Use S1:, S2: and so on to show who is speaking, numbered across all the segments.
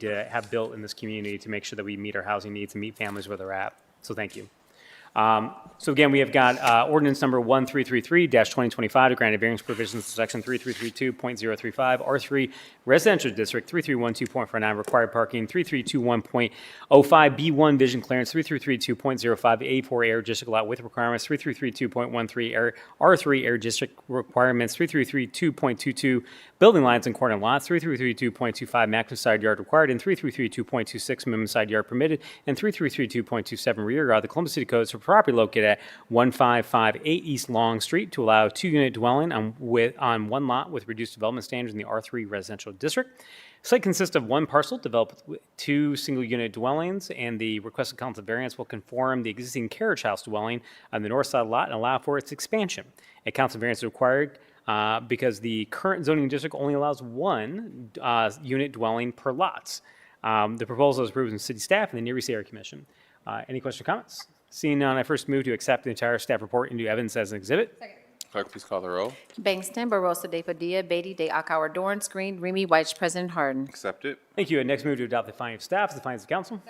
S1: to have built in this community to make sure that we meet our housing needs and meet families where they're at. So thank you. Um, So again, we have got uh, ordinance number 1333-2025 to grant a variance provisions to section 3332.035, R3 Residential District, 3312.49 required parking, 3321.05 B1 vision clearance, 3332.05 A4 air district lot with requirements, 3332.13 air, R3 air district requirements, 3332.22 building lines and corner lots, 3332.25 maximum side yard required, and 3332.26 minimum side yard permitted, and 3332.27 rear yard. The Columbus City Codes for property located at 1558 East Long Street to allow a two-unit dwelling on with, on one lot with reduced development standards in the R3 residential district. Site consists of one parcel developed with two single-unit dwellings, and the requested council variance will conform the existing carriage house dwelling on the north side lot and allow for its expansion. A council variance is required uh, because the current zoning district only allows one uh, unit dwelling per lots. Um, The proposal is approved in city staff and the Near East Area Commission. Uh, Any questions or comments? Seeing none, I first move to accept the entire staff report into evidence as an exhibit.
S2: Clerk, please call the roll.
S3: Bangston, Barosa de Padilla, Beatty de Akauer, Dorance Green, Remy White, President Harden.
S2: Accept it.
S1: Thank you. And next move to adopt the findings of staff as the findings of council.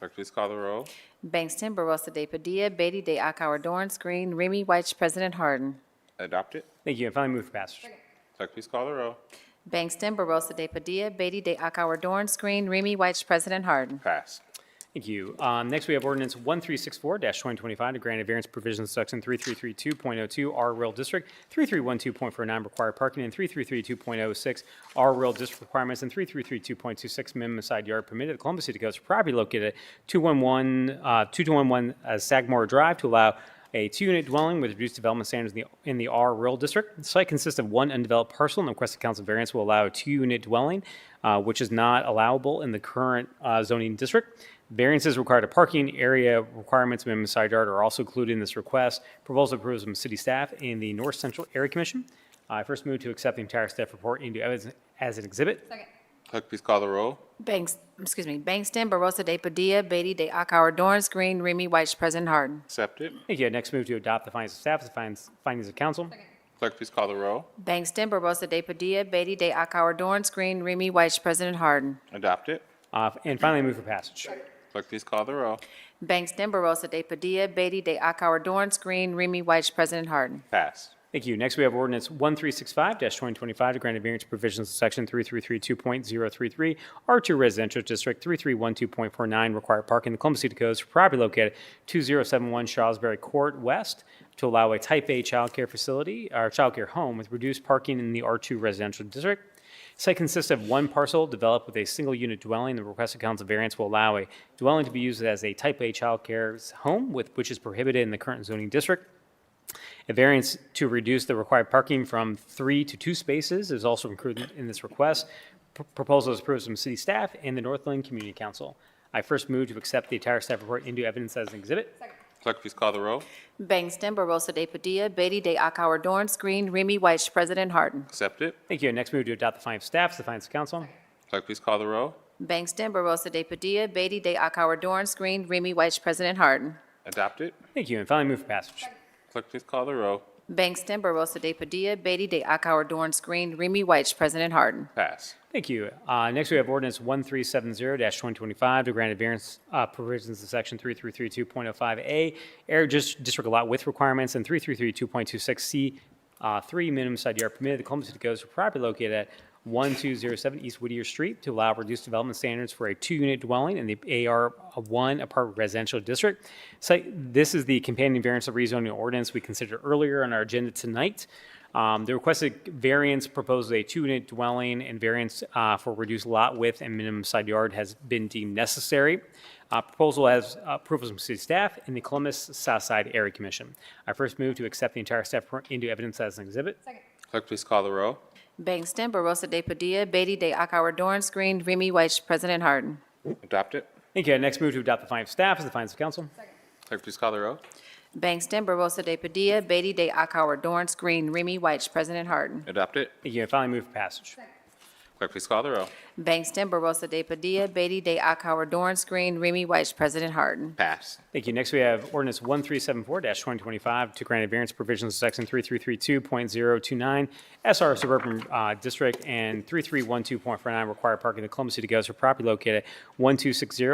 S2: Clerk, please call the roll.
S3: Bangston, Barosa de Padilla, Beatty de Akauer, Dorance Green, Remy White, President Harden.
S2: Adopt it.
S1: Thank you. And finally, move for passage.
S2: Clerk, please call the roll.
S3: Bangston, Barosa de Padilla, Beatty de Akauer, Dorance Green, Remy White, President Harden.
S2: Pass.
S1: Thank you. Um, Next, we have ordinance 1364-2025 to grant a variance provision to section 3332.02 R Rural District, 3312.49 required parking, and 3332.06 R Rural District requirements, and 3332.26 minimum side yard permitted. The Columbus City Codes for property located at 211, uh, 2211 uh, Sagamore Drive to allow a two-unit dwelling with reduced development standards in the, in the R rural district. The site consists of one undeveloped parcel, and the requested council variance will allow a two-unit dwelling, uh, which is not allowable in the current uh, zoning district. Variances required of parking area requirements, minimum side yard are also included in this request. Proposal approved from city staff and the North Central Area Commission. I first move to accept the entire staff report into evidence as an exhibit.
S2: Clerk, please call the roll.
S3: Banks, excuse me, Bangston, Barosa de Padilla, Beatty de Akauer, Dorance Green, Remy White, President Harden.
S2: Accept it.
S1: Thank you. Next move to adopt the findings of staff as the findings- findings of council.
S2: Clerk, please call the roll.
S3: Bangston, Barosa de Padilla, Beatty de Akauer, Dorance Green, Remy White, President Harden.
S2: Adopt it.
S1: Uh, And finally, move for passage.
S2: Clerk, please call the roll.
S3: Bangston, Barosa de Padilla, Beatty de Akauer, Dorance Green, Remy White, President Harden.
S2: Pass.
S1: Thank you. Next, we have ordinance 1365-2025 to grant a variance provisions of section 3332.033, R2 Residential District, 3312.49, required parking in the Columbus City Codes for property located at 2071 Charlesbury Court West to allow a type A childcare facility, or childcare home with reduced parking in the R2 Residential District. Site consists of one parcel developed with a single unit dwelling. The requested council variance will allow a dwelling to be used as a type A childcare home with, which is prohibited in the current zoning district. A variance to reduce the required parking from three to two spaces is also included in this request. P- Proposal is approved from city staff and the Northland Community Council. I first move to accept the entire staff report into evidence as an exhibit.
S2: Clerk, please call the roll.
S3: Bangston, Barosa de Padilla, Beatty de Akauer, Dorance Green, Remy White, President Harden.
S2: Accept it.
S1: Thank you. Next move to adopt the findings of staff, as the findings of council.
S2: Clerk, please call the roll.
S3: Bangston, Barosa de Padilla, Beatty de Akauer, Dorance Green, Remy White, President Harden.
S2: Adopt it.
S1: Thank you. And finally, move for passage.
S2: Clerk, please call the roll.
S3: Bangston, Barosa de Padilla, Beatty de Akauer, Dorance Green, Remy White, President Harden.
S2: Pass.
S1: Thank you. Uh, Next, we have ordinance 1370-2025 to grant a variance uh, provisions of section 3332.05A, air dis- district lot width requirements, and 3332.26C3 uh, minimum side yard permitted. The Columbus City Codes for property located at 1207 East Whittier Street to allow reduced development standards for a two-unit dwelling in the AR1 apartment residential district. Site, this is the companion variance of rezoning ordinance we considered earlier on our agenda tonight. Um, The requested variance proposes a two-unit dwelling and variance uh, for reduced lot width and minimum side yard has been deemed necessary. Uh, Proposal has approval from city staff and the Columbus South Side Area Commission. I first move to accept the entire staff report into evidence as an exhibit.
S2: Clerk, please call the roll.
S3: Bangston, Barosa de Padilla, Beatty de Akauer, Dorance Green, Remy White, President Harden.
S2: Adopt it.
S1: Thank you. I Next move to adopt the findings of staff as the findings of council.
S2: Clerk, please call the roll.
S3: Bangston, Barosa de Padilla, Beatty de Akauer, Dorance Green, Remy White, President Harden.
S2: Adopt it.
S1: Thank you. And finally, move for passage.
S2: Clerk, please call the row.
S3: Bangston, Barosa de Padilla, Beatty de Akauer, Dorance Green, Remy White, President Harden.
S2: Pass.
S1: Thank you. Next, we have ordinance 1374-2025 to grant a variance provisions of section 3332.029 SR Suburban uh, District and 3312.49 required parking of the Columbus City Gas are property located at 1260